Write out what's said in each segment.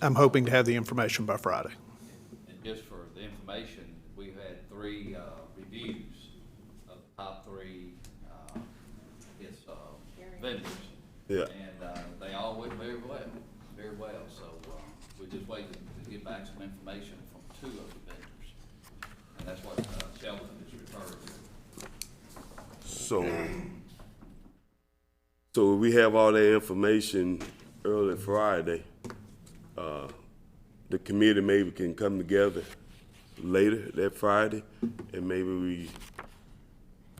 I'm hoping to have the information by Friday. And just for the information, we've had three uh, reviews of the top three, uh, it's uh, vendors. Yeah. And uh, they all went very well, very well, so uh, we're just waiting to get back some information from two of the vendors. And that's what uh, Sheldon is referring to. So, so we have all that information early Friday. Uh, The committee maybe can come together later that Friday, and maybe we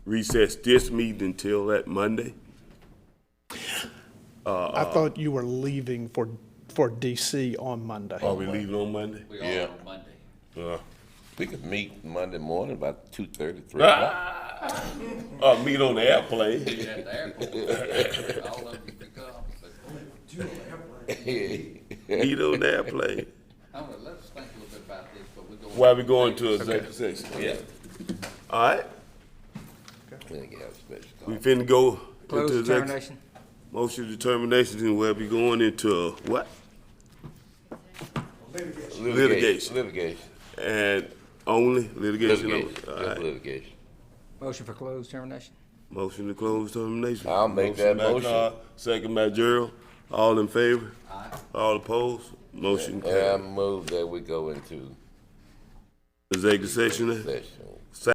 recess this meeting until that Monday. I thought you were leaving for, for DC on Monday. Are we leaving on Monday? We Yeah. are on Monday. Uh, We could meet Monday morning about two thirty, three Ah. o'clock. Uh, meet on the airplane. We're at the airport. All of you pick up, but Meet on the airplane. I'm gonna, let's think a little bit about this, but we're going. While we going to executive session. Yeah. All right, We didn't have a special call. we finna go Close into executive. determination. Motion determination, and we'll be going into what? Litigation. Litigation. And only litigation. only. Litigation. All Just right. litigation. Motion for closed termination. Motion to close termination. I'll make that by motion. Carr, Second by Gerald. All in favor? All opposed? Motion And I carried. move that we go into Executive session. session.